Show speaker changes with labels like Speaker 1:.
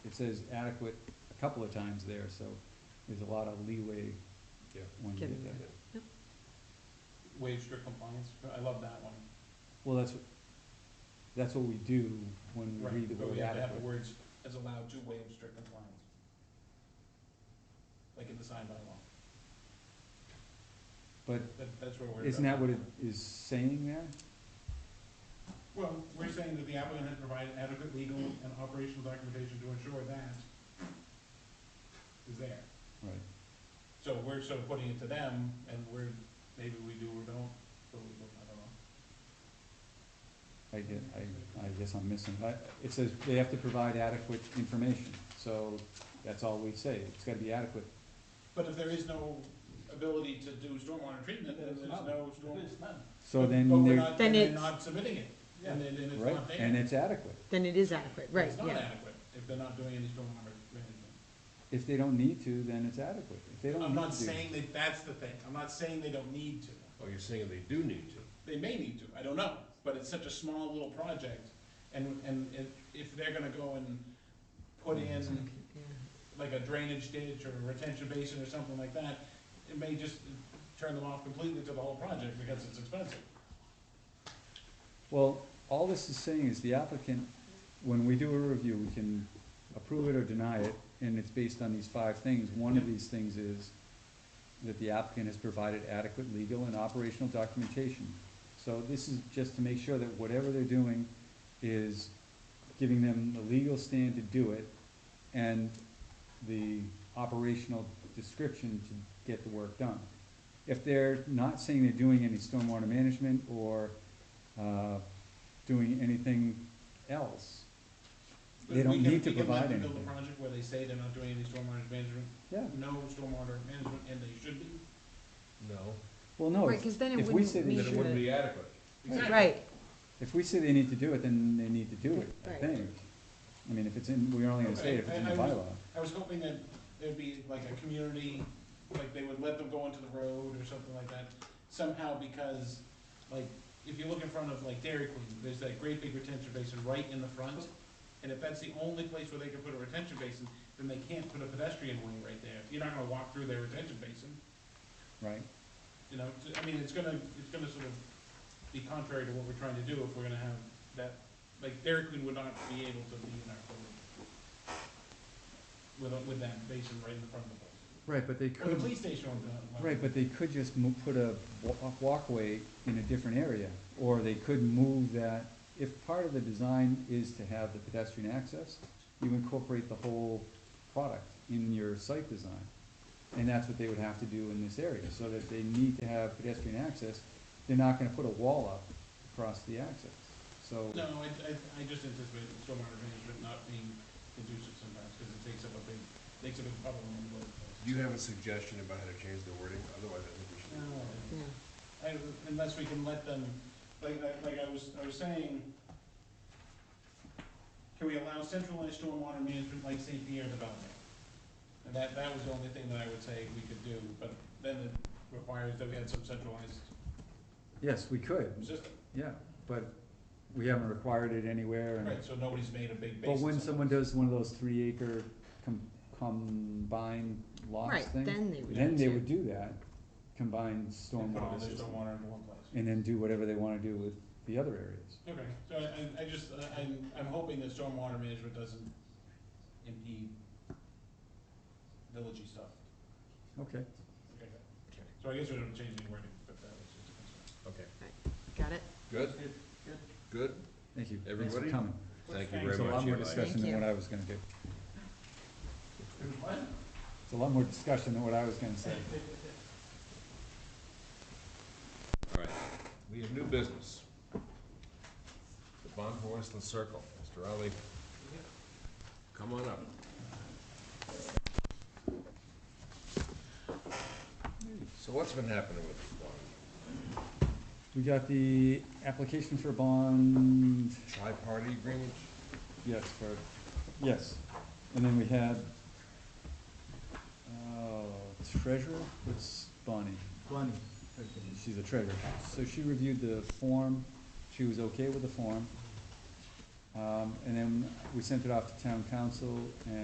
Speaker 1: says adequate a couple of times there, so there's a lot of leeway
Speaker 2: Yeah.
Speaker 1: when you get
Speaker 3: Given
Speaker 1: there.
Speaker 3: that.
Speaker 4: Waive strict compliance, I love that one.
Speaker 1: Well, that's, what- that's what we do when we read
Speaker 4: Right,
Speaker 1: the
Speaker 4: but
Speaker 1: word
Speaker 4: we have to have the
Speaker 1: adequate.
Speaker 4: words as allowed to waive strict compliance. Like in the sign by law,
Speaker 1: But
Speaker 4: that, that's where we're.
Speaker 1: isn't that what it is saying there?
Speaker 4: Well, we're saying that the applicant has provided adequate legal and operational documentation to ensure that is there.
Speaker 1: Right.
Speaker 4: So we're sort of putting it to them, and we're, maybe we do or don't, but we don't, I don't know.
Speaker 1: I get, I, I guess I'm missing, I, it says they have to provide adequate information, so that's all we say, it's gotta be adequate.
Speaker 4: But if there is no ability to do stormwater treatment, then there's no storm.
Speaker 1: So
Speaker 4: But
Speaker 1: then
Speaker 4: we're
Speaker 1: they're,
Speaker 4: not,
Speaker 3: Then
Speaker 4: then they're
Speaker 3: it's-
Speaker 4: not submitting it, and then, then it's
Speaker 1: right,
Speaker 4: not there.
Speaker 1: and it's adequate,
Speaker 3: Then it is adequate, right,
Speaker 4: It's not
Speaker 3: yeah.
Speaker 4: adequate, if they're not doing any stormwater management.
Speaker 1: if they don't need to, then it's adequate, if they don't need to.
Speaker 4: I'm not saying that that's the thing, I'm not saying they don't need to,
Speaker 2: Oh, you're saying they do need to.
Speaker 4: they may need to, I don't know, but it's such a small little project, and, and if, if they're gonna go and put
Speaker 1: Mm-hmm.
Speaker 4: in like a drainage ditch or a retention basin or something like that, it may just turn them off completely to the whole project because it's expensive.
Speaker 1: Well, all this is saying is the applicant, when we do a review, we can approve it or deny it, and it's based on these five things. One of these things is that the applicant has provided adequate legal and operational documentation. So this is just to make sure that whatever they're doing is giving them the legal stand to do it and the operational description to get the work done. If they're not saying they're doing any stormwater management or uh, doing anything else.
Speaker 4: But
Speaker 1: They
Speaker 4: we
Speaker 1: don't
Speaker 4: can-
Speaker 1: need to
Speaker 4: we can let
Speaker 1: provide
Speaker 4: them build
Speaker 1: anything.
Speaker 4: a project where they say they're not doing any stormwater management,
Speaker 1: Yeah,
Speaker 4: no stormwater management, and they should be.
Speaker 2: No.
Speaker 1: well, no,
Speaker 3: Right,
Speaker 1: if
Speaker 3: because then it
Speaker 1: if we
Speaker 3: wouldn't
Speaker 1: say that
Speaker 2: Then
Speaker 1: We
Speaker 3: meet
Speaker 2: it wouldn't
Speaker 3: the,
Speaker 2: be adequate.
Speaker 4: Exactly.
Speaker 3: right,
Speaker 1: if we say they need to do it, then they need to do it, I
Speaker 3: Right.
Speaker 1: think. I mean, if it's in, we're only gonna say it if it's in the
Speaker 4: Okay, I- I was-
Speaker 1: bylaw.
Speaker 4: I was hoping that there'd be like a community, like they would let them go into the road or something like that, somehow because, like, if you look in front of like Dairy Queen, there's that great big retention basin right in the front. And if that's the only place where they can put a retention basin, then they can't put a pedestrian way right there. You're not gonna walk through their retention basin,
Speaker 1: Right,
Speaker 4: you know, t- I mean, it's gonna, it's gonna sort of be contrary to what we're trying to do if we're gonna have that, like Dairy Queen would not be able to be in our building. With, a- with that basin right in the front of the building.
Speaker 1: right, but they
Speaker 4: Or the
Speaker 1: could,
Speaker 4: police station on the.
Speaker 1: right, but they could just mo- put a wa- walkway in a different area, or they could move that. If part of the design is to have the pedestrian access, you incorporate the whole product in your site design. And that's what they would have to do in this area, so that they need to have pedestrian access, they're not gonna put a wall up across the access, so.
Speaker 4: No, I, I, I just anticipate that stormwater management not being conducive sometimes, cause it takes up a big, takes a big puddle in the road.
Speaker 2: Do you have a suggestion about how to change the wording? Otherwise, I think we should.
Speaker 4: No,
Speaker 3: yeah.
Speaker 4: I, unless we can let them, like, like- like I was, I was saying, can we allow centralized stormwater management like St. Pierre development? And that, that was the only thing that I would say we could do, but then it requires that we had some centralized
Speaker 1: Yes, we could,
Speaker 4: system,
Speaker 1: yeah, but we haven't required it anywhere and.
Speaker 4: right, so nobody's made a big basin.
Speaker 1: But when
Speaker 4: somewhere.
Speaker 1: someone does one of those three acre com- combined lots
Speaker 3: Right,
Speaker 1: thing,
Speaker 3: then they would.
Speaker 1: then they
Speaker 3: too.
Speaker 1: would do that, combined
Speaker 4: And put all
Speaker 1: stormwater
Speaker 4: their
Speaker 1: system,
Speaker 4: stormwater into one place.
Speaker 1: and then do whatever they wanna do with the other areas.
Speaker 4: Okay, so I, I, I just, I- I'm, I'm hoping that stormwater management doesn't impede villagey stuff.
Speaker 1: Okay,
Speaker 4: Okay. So I guess we don't change any wording, but that was just a concern.
Speaker 2: Okay.
Speaker 3: Got it?
Speaker 2: Good? Good?
Speaker 1: thank you, thanks for
Speaker 2: Everybody?
Speaker 1: coming.
Speaker 2: Thank you
Speaker 4: Thanks.
Speaker 2: very
Speaker 1: It's a
Speaker 2: much.
Speaker 1: lot more
Speaker 2: Eli.
Speaker 1: discussion than
Speaker 3: Thank
Speaker 1: what I was gonna do,
Speaker 4: What?
Speaker 1: it's a lot more discussion than what I was gonna say.
Speaker 2: All right, we have new business. The Bond Westland Circle, Mr. Ali, come on up. So what's been happening with the bond?
Speaker 1: We got the application for bond,
Speaker 2: Tri-party agreement?
Speaker 1: yes, for, yes, and then we had, uh, treasurer, what's Bonnie?
Speaker 5: Bonnie,
Speaker 1: She's a treasurer. So she reviewed the form, she was okay with the form. Um, and then we sent it off to town council and